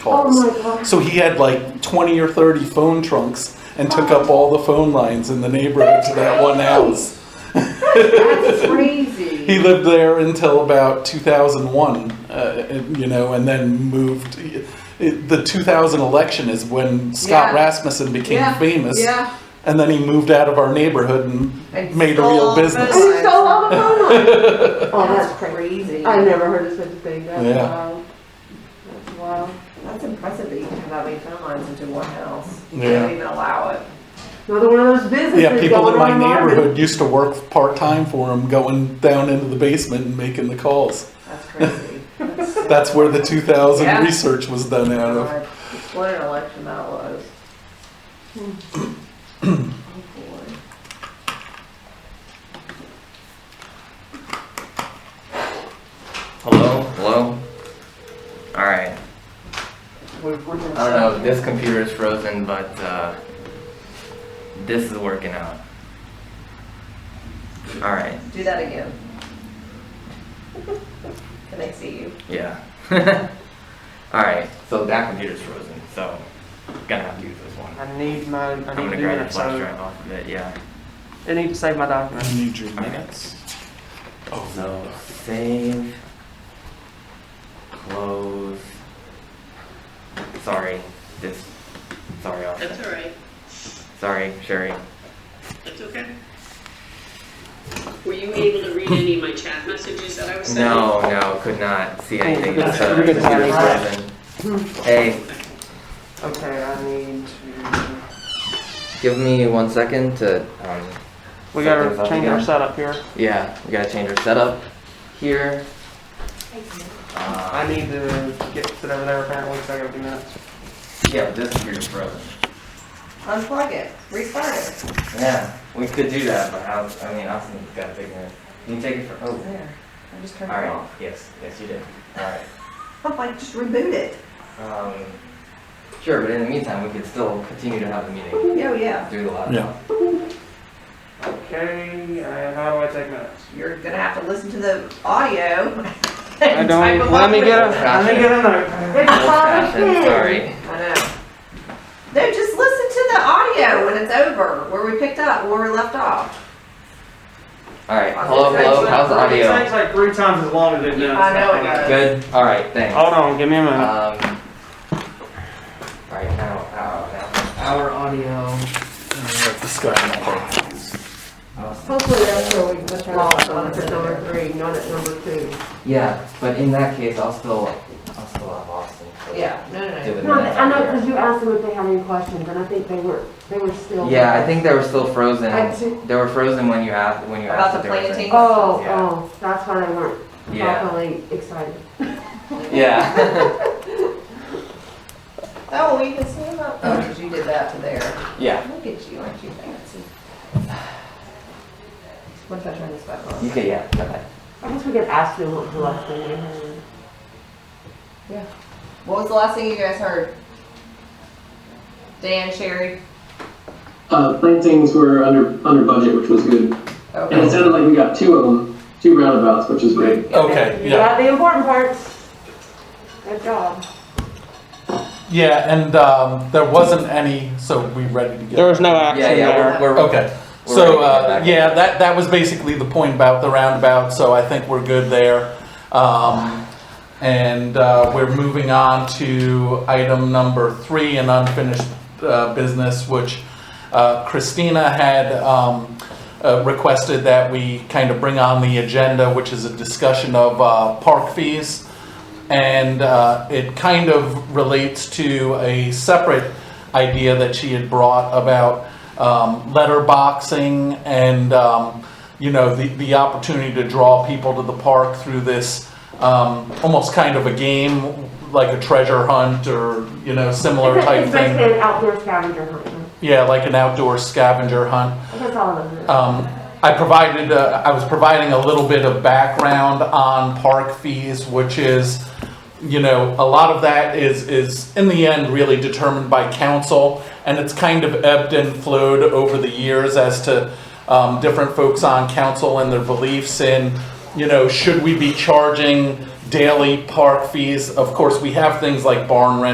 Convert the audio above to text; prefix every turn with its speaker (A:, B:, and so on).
A: calls.
B: Oh my God.
A: So he had like 20 or 30 phone trunks and took up all the phone lines in the neighborhood to that one house.
B: That's
A: He
B: crazy.
A: lived there until about 2001, uh, and, you know, and then moved. It- The 2000 election is when Scott
B: Yeah.
A: Rasmussen became
B: Yeah,
A: famous,
B: Yeah.
A: and then he moved out of our neighborhood and,
C: And
A: made a real
C: stole the
A: business.
B: And he stole all the phone lines. Oh,
C: That's
B: that's crazy.
C: crazy.
B: I never heard of such a thing. That's
A: Yeah.
B: wild. That's wild.
C: That's impressive that you can have that many phone lines into one house. You
A: Yeah.
C: don't even allow it.
B: Another one of those businesses.
A: Yeah, people
B: going
A: in my
B: on and on.
A: neighborhood used to work part time for him, going down into the basement and making the calls.
C: That's crazy. That's so
A: That's where the 2000
C: Yeah.
A: research was done out of.
C: hard. What an election that was. Oh, boy.
D: Hello? Hello? Alright.
C: We're- we're gonna-
D: I don't know, if this computer is frozen, but uh, this is working out. Alright,
C: Do that again. Can I see you?
D: yeah. Alright, so that computer's frozen, so gonna have to use this one.
E: I need my, I
D: I'm
E: need
D: gonna
E: to do
D: grab the
E: that,
D: flash
E: so,
D: drive off of it, yeah.
E: I need to save my document.
A: I need your
D: Okay.
A: minutes. Oh,
D: So save, close. Sorry, this. Sorry, Austin.
F: That's all right.
D: Sorry, Sherry.
F: That's okay. Were you able to read any of my chat messages that I was sending?
D: No, no, could not see anything.
E: You're good.
D: so
E: You're good.
D: computer's frozen. Hey,
E: Okay, I need to,
D: give me one second to. Um,
E: we
D: Set those
E: gotta
D: up
E: change our
D: again.
E: setup here.
D: yeah, we gotta change our setup here.
E: I
D: Uh,
E: need to get, sit over there apparently, because I gotta do minutes.
D: yeah, but this computer's frozen.
C: Unplug it, restart it.
D: Yeah, we could do that, but I, was- I mean, Austin's gotta figure it. You can take it for. Oh,
C: There, I just turned it
D: alright.
C: off.
D: Yes, yes, you did. Alright.
C: I'm like, just reboot it.
D: Um, sure, but in the meantime, we could still continue to have the meeting
C: Oh, yeah,
D: through the laptop.
A: Yeah.
E: Okay, and how do I take minutes?
C: you're gonna have to listen to the audio.
E: I don't, let me get a, let me get a note.
B: It's
D: Old fashioned,
B: fine.
D: sorry.
C: I know. No, just listen to the audio when it's over, where we picked up, where we left off.
D: Alright, hello, hello, how's the
E: It
D: audio?
E: takes like three times as long as it does.
C: I know it does.
D: Good, alright, thanks.
E: Hold on, give me a
D: Um,
E: minute.
D: alright, now, uh, now, now, our audio.
A: this guy.
D: Awesome.
B: Hopefully that's where we put
C: Lost
B: off
C: on
B: on
C: it.
B: at number three, not at number two.
D: Yeah, but in that case, I'll still, I'll still have Austin. so
C: Yeah, no,
D: do
C: no,
D: it
B: No,
D: next
B: I know, because
D: year.
B: you asked them if they had any questions, and I think they were, they were still.
D: Yeah, I think they were still frozen.
B: I ju-
D: They were frozen when you asked, when you
C: About
D: asked.
C: the
D: if there was
C: planting?
D: any-
B: Oh,
D: Yeah.
B: oh, that's why they weren't
D: Yeah.
B: properly excited.
D: Yeah,
C: no. Oh, well, you can see about, oh, because you did that to there.
D: yeah.
C: Look at you, aren't you fancy? What if I turn this back on?
D: You could, yeah. Okay.
B: I guess we could ask them what the last thing they heard.
C: What was the last thing you guys heard? Dan, Sherry?
G: Uh, plantings were under, under budget, which was good. And it
C: Okay.
G: sounded like we got two of them, two roundabouts, which is great.
A: Okay,
B: You
A: yeah.
B: got the important parts. Good job.
A: Yeah, and um, there wasn't any, so we ready to get.
E: There was no action
D: Yeah, yeah,
E: there.
D: we're, we're,
A: Okay,
D: We're
A: so
D: ready to get
A: uh,
D: back.
A: yeah, that that was basically the point about the roundabout. So I think we're good there, um, and uh, we're moving on to item number three, an unfinished uh, business, which uh, Christina had. Um, uh, requested that we kind of bring on the agenda, which is a discussion of uh, park fees. And uh, it kind of relates to a separate idea that she had brought about um, letterboxing and, um, you know, the, the opportunity to draw people to the park through this um, almost kind of a game, like a treasure hunt or, you know, similar
B: It's a-
A: type
B: It's basically
A: thing.
B: an outdoor scavenger hunt.
A: Yeah, like an outdoor scavenger hunt.
B: That's all of it.
A: Um, I provided, uh, I was providing a little bit of background on park fees, which is, you know, a lot of that is, is in the end really determined by council. And it's kind of ebbed and flowed over the years as to, um, different folks on council and their beliefs in, you know, should we be charging daily park fees? Of course, we have things like barn rent